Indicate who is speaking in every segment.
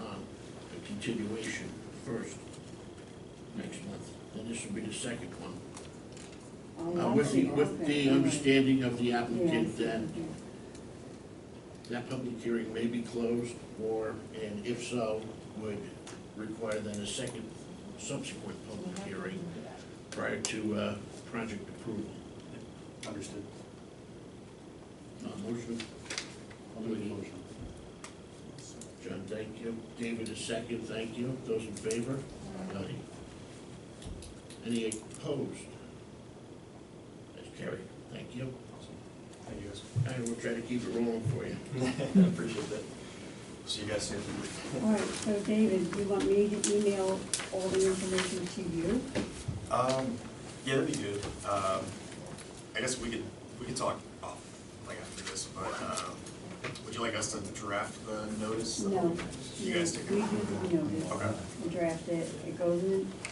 Speaker 1: um, continuation, the first, next month, and this will be the second one. Uh,
Speaker 2: I
Speaker 1: With the,
Speaker 2: see.
Speaker 1: with
Speaker 2: Okay,
Speaker 1: the
Speaker 2: all right.
Speaker 1: understanding of the
Speaker 2: Yeah, I
Speaker 1: applicant
Speaker 2: see.
Speaker 1: that that public hearing may be closed, or, and if so, would require then a second subsequent public hearing prior to uh, project approval.
Speaker 3: Understood.
Speaker 1: Uh, Motion,
Speaker 3: I'll make a motion.
Speaker 1: John, thank you. David, a second, thank you. Those in favor? Aye. Any opposed? That's carried, thank you.
Speaker 3: Awesome. Thank you
Speaker 1: I will try to keep it rolling for you.
Speaker 3: guys. I appreciate that. See you guys soon.
Speaker 2: All right, so David, you want me to email all the information to you?
Speaker 3: Um, yeah, that'd be good. Um, I guess we could, we could talk off, like after this, but, um, would you like us to draft the notice?
Speaker 2: No.
Speaker 3: You guys take
Speaker 2: We
Speaker 3: it?
Speaker 2: do the notice,
Speaker 3: Okay,
Speaker 2: we draft it, it goes in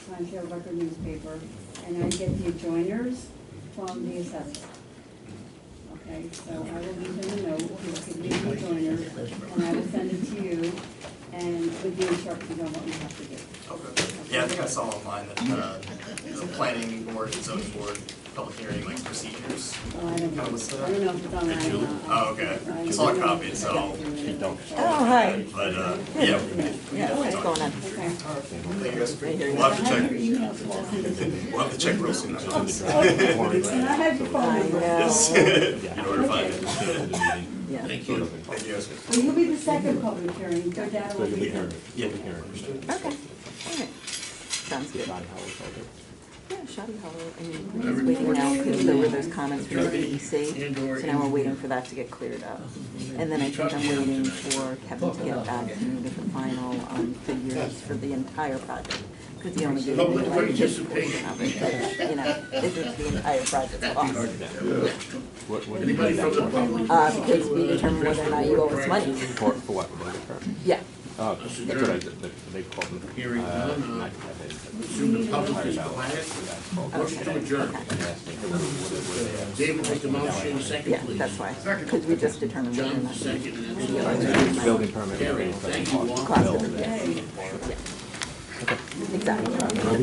Speaker 2: the Times Record newspaper, and I get the adjoiners from the assessor. Okay, so I will leave them a note, you can leave the adjoiners, and I will send it to you, and with the instructions on what you have to do.
Speaker 3: okay. Yeah, I think I saw online that, uh, the planning board and zoning board, public hearing, like procedures.
Speaker 2: Oh, I don't know, I
Speaker 3: Kinda what's that?
Speaker 2: don't know if it's online or not.
Speaker 3: Oh, okay.
Speaker 2: I-
Speaker 3: It's all
Speaker 2: I don't know
Speaker 3: copied,
Speaker 2: if it's
Speaker 3: so-
Speaker 2: got through it.
Speaker 4: Oh, hi.
Speaker 3: But, uh, yeah. we could- we could
Speaker 4: Yeah, what's
Speaker 3: definitely talk.
Speaker 4: going on?
Speaker 2: Okay.
Speaker 3: Thank you guys. We'll have to
Speaker 2: I have
Speaker 3: check,
Speaker 2: your email, so I'll send it to you.
Speaker 3: we'll have to check real soon.
Speaker 2: And I have your phone
Speaker 4: I
Speaker 2: number.
Speaker 3: Yes,
Speaker 4: know,
Speaker 3: you know where to find it.
Speaker 4: yeah.
Speaker 1: Thank you.
Speaker 3: Thank you guys.
Speaker 2: So you'll be the second public hearing, go down on the weekend.
Speaker 3: Yeah.
Speaker 4: Okay, all right. Sounds good. Yeah, Shoddy Hollow, I mean, we're just waiting now because there were those comments from the DEC. So now we're waiting for that to get cleared up. And then I think I'm waiting for Kevin to get back to me with the final um, figures for the entire project. Because he only gave me
Speaker 1: Public
Speaker 4: like this
Speaker 1: participation.
Speaker 4: portion of it, but, you know, this is the entire project cost.
Speaker 5: What, what do you
Speaker 1: Anybody
Speaker 5: need
Speaker 1: from
Speaker 5: that
Speaker 1: the
Speaker 5: for?
Speaker 1: public?
Speaker 4: Uh, because we determine whether or not you owe us money.
Speaker 5: For, for what, for the current?
Speaker 4: Yeah,
Speaker 5: Oh, that's what I, did. they, they called me.
Speaker 1: Hearing
Speaker 5: Uh,
Speaker 1: none,
Speaker 5: and I
Speaker 1: uh,
Speaker 5: have it.
Speaker 1: Assume the public is quiet. Motion to adjourn.
Speaker 5: They asked me, hey, what- what- what-
Speaker 1: David make the motion, second
Speaker 4: yeah,
Speaker 1: please.
Speaker 4: that's why. Because we just determined whether or
Speaker 1: John,
Speaker 4: not.
Speaker 1: second, and that's
Speaker 4: Yeah.
Speaker 1: all.
Speaker 4: Yeah.
Speaker 5: Building permit.
Speaker 1: Carried. Thank you all.
Speaker 4: Cost of the,
Speaker 2: Yay.
Speaker 4: yeah. Exactly.